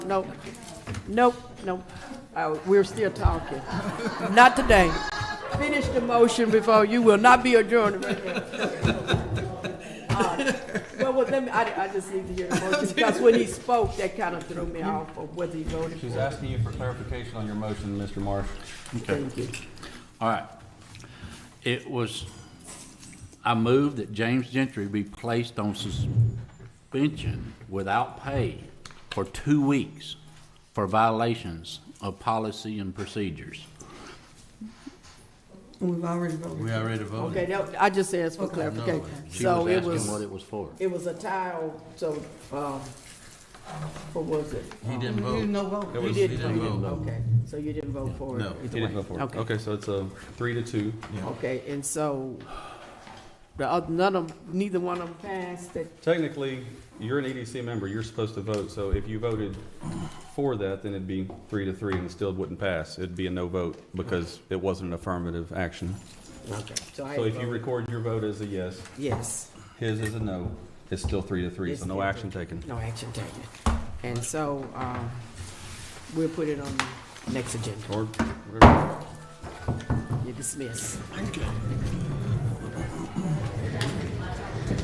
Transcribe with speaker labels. Speaker 1: no, nope, nope. Uh, We're still talking. Not today. Finish the motion before you will not be adjourned. Uh, Well, well, let me, I, I just need to hear the motion, because when he spoke, that kind of threw me off of whether he voted
Speaker 2: She's
Speaker 1: for it.
Speaker 2: asking you for clarification on your motion, Mr. Marsh.
Speaker 1: Thank you.
Speaker 3: All right. It was, I moved that James Gentry be placed on suspension without pay for two weeks for violations of policy and procedures.
Speaker 4: We've already voted.
Speaker 2: We already voted.
Speaker 1: Okay, that, I just asked for clarification.
Speaker 3: She
Speaker 1: So
Speaker 3: was
Speaker 1: it
Speaker 3: asking what
Speaker 1: was,
Speaker 3: it was for.
Speaker 1: it was a tie, on- so, um, what was it?
Speaker 2: He didn't
Speaker 4: We did
Speaker 2: vote.
Speaker 4: no vote.
Speaker 2: There
Speaker 1: You
Speaker 2: was-
Speaker 1: didn't,
Speaker 2: he
Speaker 1: you didn't,
Speaker 2: vote.
Speaker 1: okay, so you didn't vote for it?
Speaker 2: No, he didn't vote for it.
Speaker 1: Okay.
Speaker 2: Okay, so it's a three to two.
Speaker 1: Okay, and so, the other, none of, neither one of them passed that,
Speaker 2: Technically, you're an EDC member, you're supposed to vote, so if you voted for that, then it'd be three to three and it still wouldn't pass. It'd be a no vote because it wasn't an affirmative action.
Speaker 1: okay, so I
Speaker 2: So if you
Speaker 1: voted.
Speaker 2: record your vote as a yes,
Speaker 1: Yes,
Speaker 2: his is a no, it's still three to three, so no action taken.
Speaker 1: no action taken. And so, um, we'll put it on the next agenda,
Speaker 2: Or whatever.
Speaker 1: you dismiss.